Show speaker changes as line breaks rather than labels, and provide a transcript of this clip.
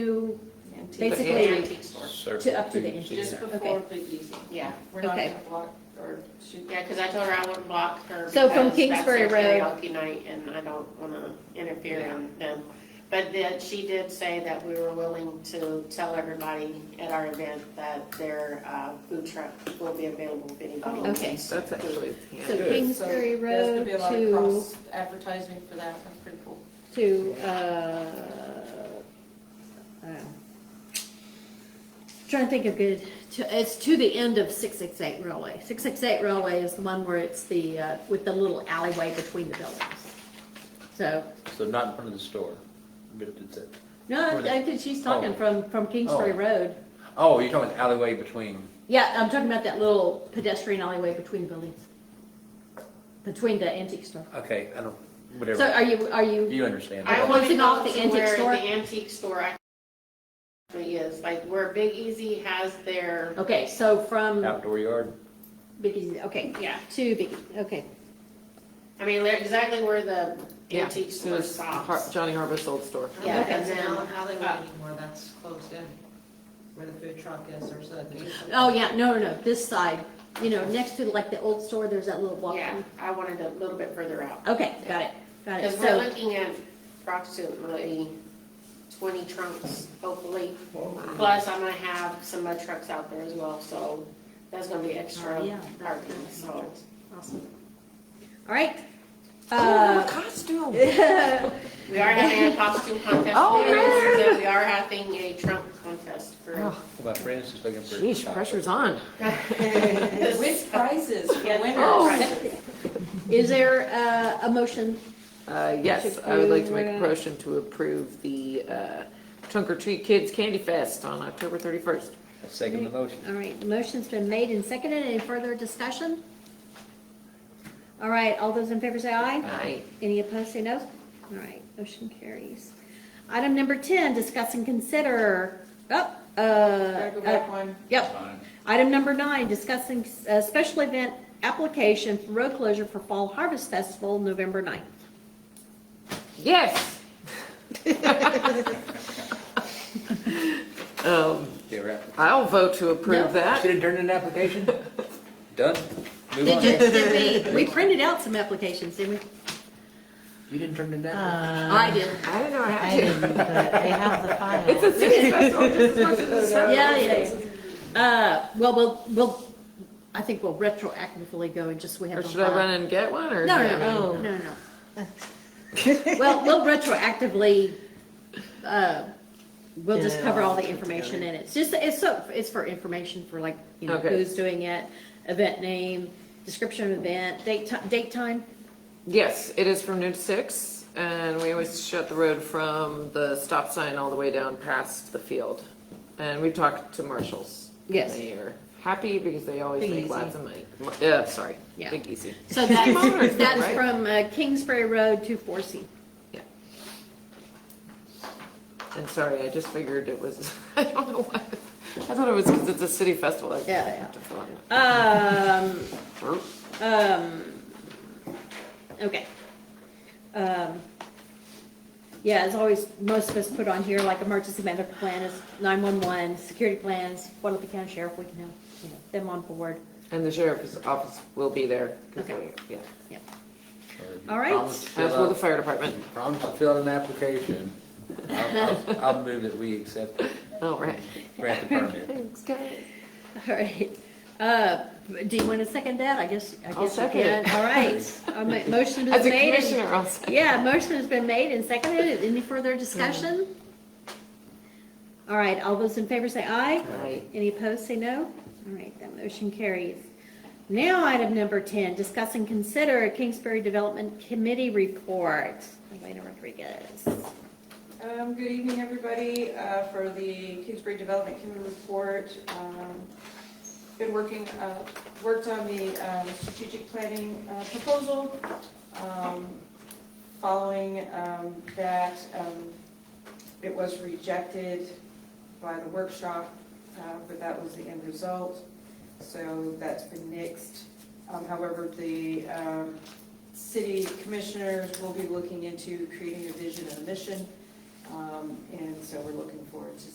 to,
Basically-
Antique store.
to up to the antique
Just
store.
before
Okay.
Big Easy, yeah. We're not
Okay.
gonna block or shoot, yeah, because I told her I wouldn't block her.
So from
because that's
Kingsbury
their
Road-
Karaoke night and I don't wanna interfere in them. But then she did say that we were willing to tell everybody at our event that their uh, food truck will be available if anybody
Oh,
needs.
okay.
That's actually,
So
yeah.
Good.
Kingsbury
There's gonna
Road
be a lot of
to,
cross Advertising for that, that's pretty cool.
to, uh, oh. Trying to think of good, to- it's to the end of six six eight railway. Six six eight railway is the one where it's the, uh, with the little alleyway between the buildings. So,
So not in front of the store. But it's a-
no, I I think she's talking
Oh.
from, from Kingsbury
Oh.
Road.
Oh, you're talking about the alleyway between,
Yeah, I'm talking about that little pedestrian alleyway between buildings, between the antique store.
okay, I don't,
So
whatever.
are you, are you,
You understand.
Okay.
I want to
Closing off
go
the
to
antique
where
store?
the antique store actually is, like where Big Easy has their,
okay, so from
Outdoor yard.
Big Easy, okay,
yeah,
to Big, Easy, okay.
I mean, they're exactly where the
Yeah.
antique
So
store
it's Har-
stops.
Johnny Harvest old store.
Yeah,
Okay.
and then,
Hollywood anymore, that's closed in, where the food truck is, there's a.
Oh, yeah, no, no, no, this side, you know, next to like the old store, there's that little walk.
yeah, I wanted a little bit further out.
Okay, got it, got it,
Because we're
so,
looking at approximately twenty trunks, hopefully. Plus, I'm gonna have some mud trucks out there as well, so that's gonna be extra
Oh, yeah.
parking, so.
awesome. All right.
Oh,
Uh,
costume.
We are having a costume contest.
Oh,
for
man.
this, and We are having a trunk contest for.
Oh,
My friend's just looking for.
Jeez,
chocolate.
pressure's on.
With
prizes for
Oh, Is there uh, a motion?
Uh, yes, I would like to make a motion to approve the, uh, Trunk or Treat Kids Candy Fest on October thirty-first.
I Second the motion.
All right, motion's been made and seconded, any further discussion? All right, all those in favor say aye.
Aye.
Any opposed, say no. All right, motion carries. Item number 10, discuss and consider, oh, uh,
Gotta go
uh,
back one.
yep. Item number nine, discussing a special event application for road closure for Fall Harvest Festival, November 9th.
Yes. Um,
Yeah, right.
I'll vote to
No.
approve that.
Should have turned in an application. Done. Move
Did
on.
you, did we, we printed out some applications, didn't we?
You didn't turn in that?
I did.
I didn't know I
I
had to.
didn't, but I have the file.
It's a city festival, just as much as a summer.
Yeah, yeah. Uh, well, we'll, we'll, I think we'll retroactively go and just, we have.
Or
it on
should I
file.
run and get one, or?
No, no, no, no, no, no. Well, we'll retroactively, uh, we'll just cover all the information in it. It's just, it's so, it's for information for like, you know,
Okay.
who's doing it, event name, description of event, date, ti- date, time.
Yes, it is from noon to six, and we always shut the road from the stop sign all the way down past the field. And we've talked to marshals.
Yes.
They are happy because they always
Big
make
Easy.
lots of money. Mo- Yeah, sorry,
Yeah.
Big Easy.
So
Smaller,
that's, that's
right?
from uh, Kingsbury Road to Forsyth.
And sorry, I just figured it was, I don't know why, I thought it was because it's a city festival. I
Yeah, yeah.
have to fill out my-
Um, Um, okay. Um, yeah, as always, most of us put on here, like emergency medical plan is nine-one-one, security plans, Guadalupe County Sheriff, we can have, you know, them on board.
And the sheriff's office will be there. 'cause
Okay.
they- Yeah,
All right.
Promise to fill
as will the
out-
fire department.
Promise to fill out an application. I'll, I'll- I'll move that we accept, it.
All right.
grant the permit.
Thanks, guys.
All right. Uh, do you want to second that? I guess, I
I'll
guess you
second it.
can. All right. All right. Motion has
As a
been made.
commissioner,
and-
I'll say.
Yeah, motion has been made and seconded. Any further discussion? All right, all those in favor say aye.
Aye.
Any opposed, say no. All right, that motion carries. Now, item number 10, discuss and consider a Kingsbury Development Committee report. Elena Rodriguez.
Um, good evening, everybody. Uh, for the Kingsbury Development Committee report, um, been working, uh, worked on the, um, strategic planning, uh, proposal. Um, following, um, that, um, it was rejected by the workshop, uh, but that was the end result. So that's been nixed. Um, however, the, um, city commissioners will be looking into creating a vision and a mission uh, Um, And so we're looking forward to